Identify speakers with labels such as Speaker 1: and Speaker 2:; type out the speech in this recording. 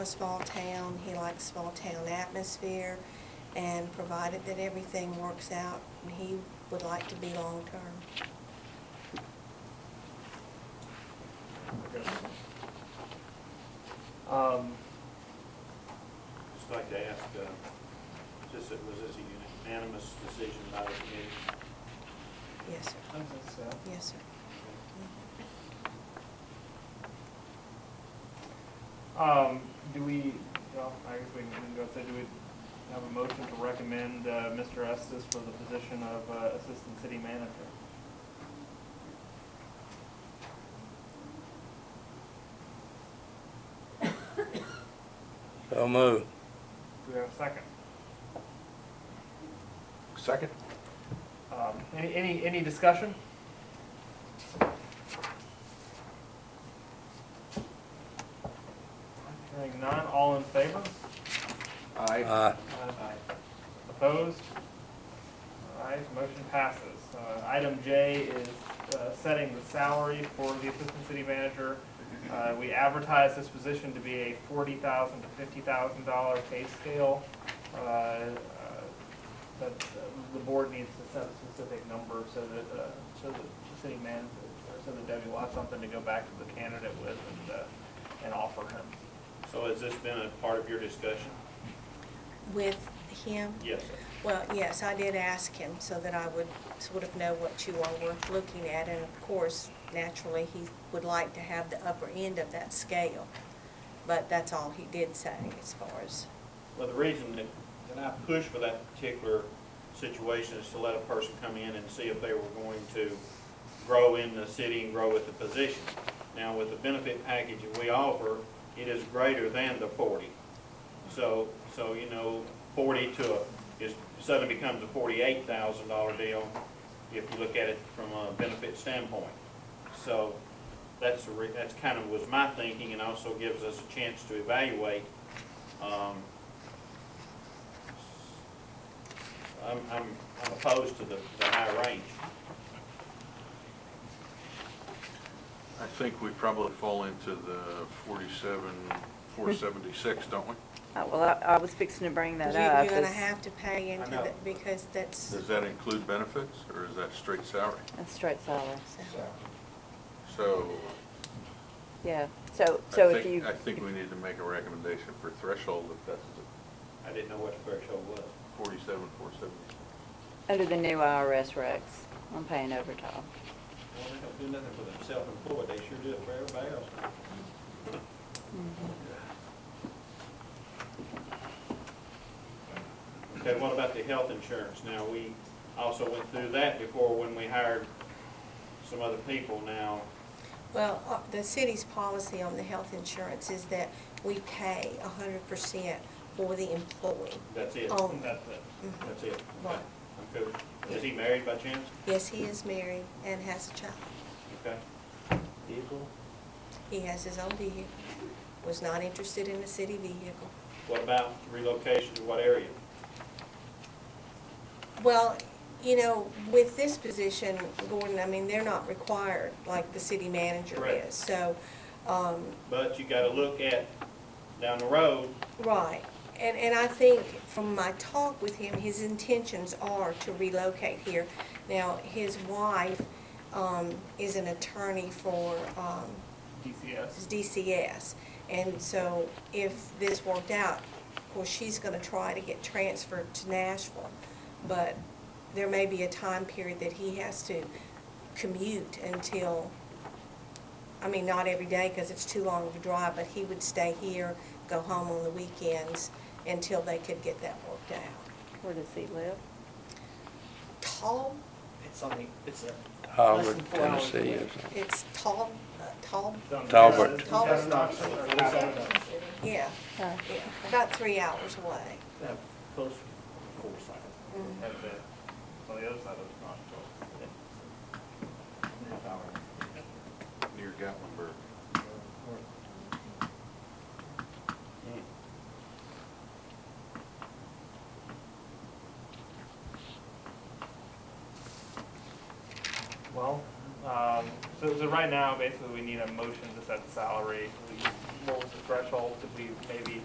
Speaker 1: a small town, he likes small town atmosphere, and provided that everything works out, he would like to be long-term.
Speaker 2: Um,
Speaker 3: Just like to ask, uh, is this, was this a unanimous decision by the committee?
Speaker 1: Yes, sir.
Speaker 2: I think so.
Speaker 1: Yes, sir.
Speaker 2: Um, do we, well, I guess we can go through, do we have a motion to recommend, uh, Mr. Estes for the position of, uh, Assistant City Manager?
Speaker 4: So move.
Speaker 2: Do we have a second?
Speaker 5: Second?
Speaker 2: Um, any, any, any discussion? Hearing none, all in favor?
Speaker 4: Aye.
Speaker 5: Aye.
Speaker 2: Uh, Opposed? All right, motion passes. Uh, Item J is uh, setting the salary for the assistant city manager. Uh, We advertise this position to be a forty thousand to fifty thousand dollar pay scale. Uh, uh, But uh, the board needs to set a specific number so that, uh, so that the city manager, or so that Debbie will have something to go back to the candidate with and, uh, and offer him.
Speaker 3: So has this been a part of your discussion?
Speaker 1: With him?
Speaker 3: Yes, sir.
Speaker 1: Well, yes, I did ask him so that I would sort of know what you all were looking at, and of course, naturally, he would like to have the upper end of that scale. But that's all he did say as far as,
Speaker 3: Well, the reason that, that I pushed for that particular situation is to let a person come in and see if they were going to grow in the city and grow with the position. Now, with the benefit package that we offer, it is greater than the forty. So, so, you know, forty to, a is, suddenly becomes a forty-eight thousand dollar deal if you look at it from a benefit standpoint. So, that's, the re- that's kind of was my thinking, and also gives us a chance to evaluate, um, I'm, I'm, I'm opposed to the, the high range.
Speaker 5: I think we probably fall into the 47, 476, don't we?
Speaker 6: Uh, Well, I I was fixing to bring
Speaker 1: you-
Speaker 6: that up.
Speaker 1: you're gonna
Speaker 6: is-
Speaker 1: have to pay into
Speaker 3: know.
Speaker 1: that, because that's,
Speaker 5: Does that include benefits, or is that straight salary?
Speaker 6: That's straight salary,
Speaker 5: So
Speaker 6: yeah. So,
Speaker 5: I
Speaker 6: so if
Speaker 5: think,
Speaker 6: you,
Speaker 5: I think we need to make a recommendation for threshold if that's the
Speaker 3: I didn't know what the threshold was.
Speaker 5: 47, 476.
Speaker 6: under the new IRS regs, I'm paying overtime.
Speaker 3: Well, they don't do nothing for themselves employed, they sure do it for everybody else. Okay, what about the health insurance? Now, we also went through that before when we hired some other people now.
Speaker 1: well, uh, the city's policy on the health insurance is that we pay a hundred percent for the employee.
Speaker 3: That's it.
Speaker 1: Oh.
Speaker 3: That's it. That's it.
Speaker 1: Right.
Speaker 3: Okay. I'm good. Is he married by chance?
Speaker 1: Yes, he is married and has a child.
Speaker 3: Okay. Vehicle?
Speaker 1: He has his own vehicle, was not interested in a city vehicle.
Speaker 3: What about relocation to what area?
Speaker 1: Well, you know, with this position, Gordon, I mean, they're not required like the city manager
Speaker 3: Correct.
Speaker 1: is. So, um,
Speaker 3: But you gotta look at down the road,
Speaker 1: right. And, and I think from my talk with him, his intentions are to relocate here. Now, his wife, um, is an attorney for, um,
Speaker 2: DCS.
Speaker 1: is DCS. And so if this worked out, of course, she's gonna try to get transferred to Nashville. But there may be a time period that he has to commute until, I mean, not every day, because it's too long of a drive, but he would stay here, go home on the weekends until they could get that worked out.
Speaker 6: Where does he live?
Speaker 1: Tall,
Speaker 7: It's on the, it's a.
Speaker 4: Howard,
Speaker 7: Less than four hours
Speaker 4: Tennessee.
Speaker 7: away.
Speaker 4: or something.
Speaker 1: it's tall, uh, tall,
Speaker 4: Talbot.
Speaker 1: Talbot.
Speaker 2: Talbot.
Speaker 1: yeah,
Speaker 6: Uh,
Speaker 1: yeah, about three hours away.
Speaker 7: uh, Close to Forsyth.
Speaker 1: Mhm.
Speaker 2: That's it. It's on the other side of the pond.
Speaker 7: Half hour.
Speaker 5: near Gatlinburg.
Speaker 2: Well, um, so, so right now, basically, we need a motion to set the salary. We what was the threshold? Could we maybe